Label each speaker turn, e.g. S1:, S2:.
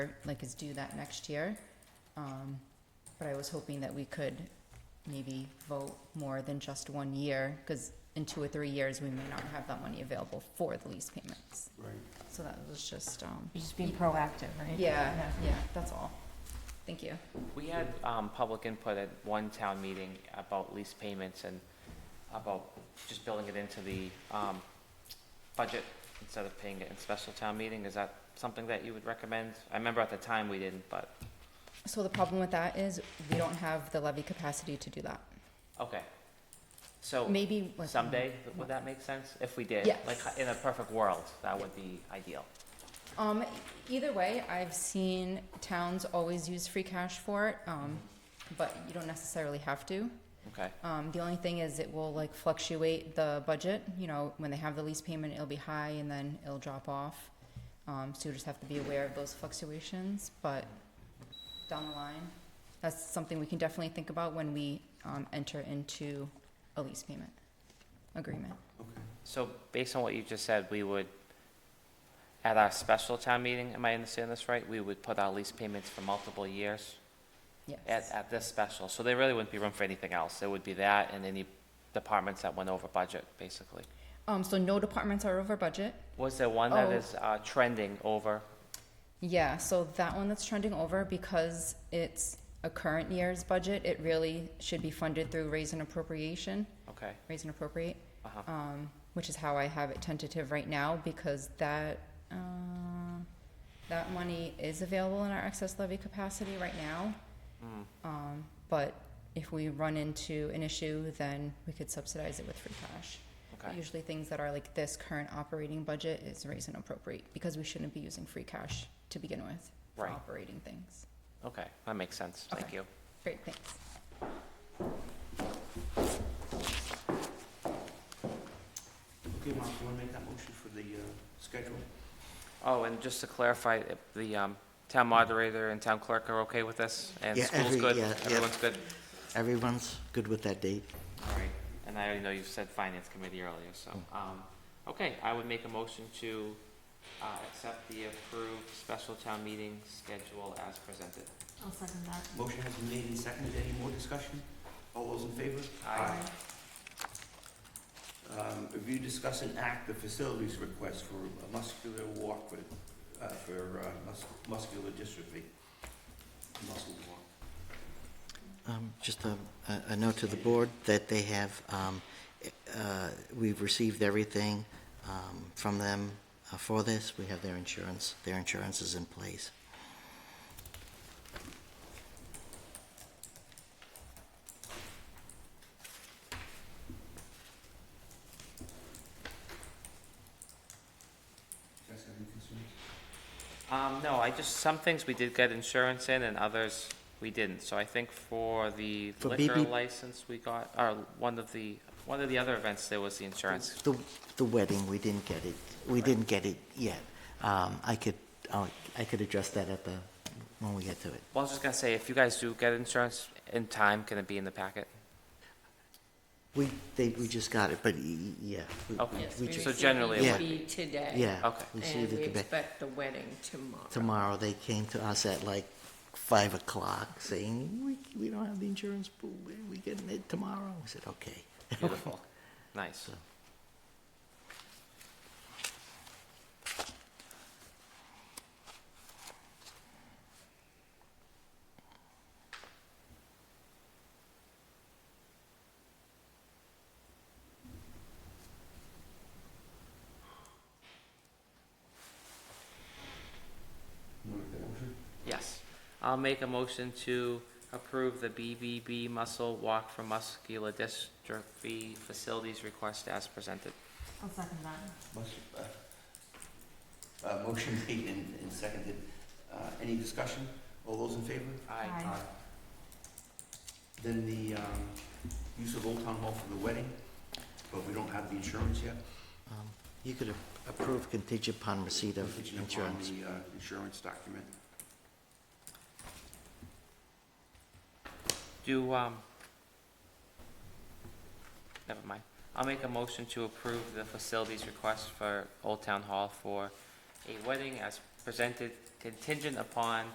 S1: like is due that next year. Um, but I was hoping that we could maybe vote more than just one year, because in two or three years, we may not have that money available for the lease payments.
S2: Right.
S1: So that was just, um,
S3: You're just being proactive, right?
S1: yeah, yeah, that's all. Thank you.
S4: We had um, public input at one town meeting about lease payments and about just building it into the um, budget instead of paying it in special town meeting. Is that something that you would recommend? I remember at the time we didn't, but,
S1: So the problem with that is we don't have the levy capacity to do that.
S4: okay. So
S1: Maybe. like,
S4: someday, would that make sense? If we did?
S1: Yes.
S4: Like, in a perfect world, that would be ideal.
S1: Um, either way, I've seen towns always use free cash for it, um, but you don't necessarily have to.
S4: Okay,
S1: Um, the only thing is it will like fluctuate the budget, you know, when they have the lease payment, it'll be high and then it'll drop off. Um, so you just have to be aware of those fluctuations, but down the line, that's something we can definitely think about when we, um, enter into a lease payment agreement.
S2: Okay.
S4: so based on what you just said, we would, at our special town meeting, am I understanding this right? We would put our lease payments for multiple years? at,
S1: Yes,
S4: at this special, so there really wouldn't be room for anything else. There would be that and any departments that went over budget, basically.
S1: um, so no departments are over budget.
S4: Was there one that
S1: Oh.
S4: is uh, trending over?
S1: Yeah, so that one that's trending over because it's a current year's budget, it really should be funded through raise and appropriation,
S4: Okay,
S1: raise and appropriate.
S4: uh-huh,
S1: um, which is how I have it tentative right now because that uh, that money is available in our excess levy capacity right now.
S4: Mm.
S1: Um, but if we run into an issue, then we could subsidize it with free cash. But
S4: okay,
S1: Usually, things that are like this current operating budget is raise and appropriate because we shouldn't be using free cash to begin with for
S4: Right.
S1: operating things.
S4: okay, that makes sense, thank
S1: Okay.
S4: you.
S1: Great, thanks.
S2: Okay, Mark, you want to make that motion for the uh, schedule?
S4: Oh, and just to clarify, if the um, town moderator and town clerk are okay with this? And
S5: Yeah,
S4: school's
S5: every-
S4: good,
S5: yeah, yeah.
S4: everyone's good?
S5: Everyone's good with that date?
S4: All right, and I already know you said finance committee earlier, so,
S5: Hmm.
S4: um, okay, I would make a motion to uh, accept the approved special town meeting schedule as presented.
S3: I'll second that.
S2: Motion has been made and seconded. Any more discussion? All those in favor?
S4: Aye.
S2: Um, Review, discuss, and act the facilities request for a muscular walk with, uh, for uh, mus- muscular dystrophy. Muscle walk.
S5: Um, Just a- a a note to the board that they have, um, uh, we've received everything um, from them uh, for this. We have their insurance, their insurance is in place.
S2: You guys have any concerns?
S4: Um, no, I just, some things we did get insurance in and others we didn't. So I think for the
S5: For
S4: liquor
S5: BB
S4: license we got, or one of the, one of the other events, there was the insurance.
S5: The the wedding, we didn't get it, we didn't get it yet. Um, I could, I'll- I could address that at the, when we get to it.
S4: Well, I was just gonna say, if you guys do get insurance in time, can it be in the packet?
S5: We, they, we just got it, but y- y- yeah. we-
S4: Okay.
S5: we
S4: Yes,
S5: ju-
S4: So generally it
S5: Yeah.
S4: would
S6: be today.
S5: Yeah.
S4: Okay.
S5: we
S6: And
S5: received it
S6: we
S5: the ba-
S6: expect the wedding tomorrow.
S5: tomorrow, they came to us at like five o'clock saying, we, we don't have the insurance, but we, we getting it tomorrow. We said, okay.
S4: Beautiful. Nice.
S5: So-
S2: You want to make that motion?
S4: Yes. I'll make a motion to approve the BBB Muscle Walk for Muscular Dystrophy Facilities Request as presented.
S3: I'll second that.
S2: Motion, uh, uh, Motion made and and seconded. Uh, Any discussion? All those in favor?
S3: Aye.
S2: Then the um, use of Old Town Hall for the wedding, but we don't have the insurance yet.
S5: Um, You could a- approve contingent upon receipt of
S2: Contingent upon
S5: insurance.
S2: the uh, insurance document.
S4: Do, um, never mind. I'll make a motion to approve the facilities request for Old Town Hall for a wedding as presented contingent upon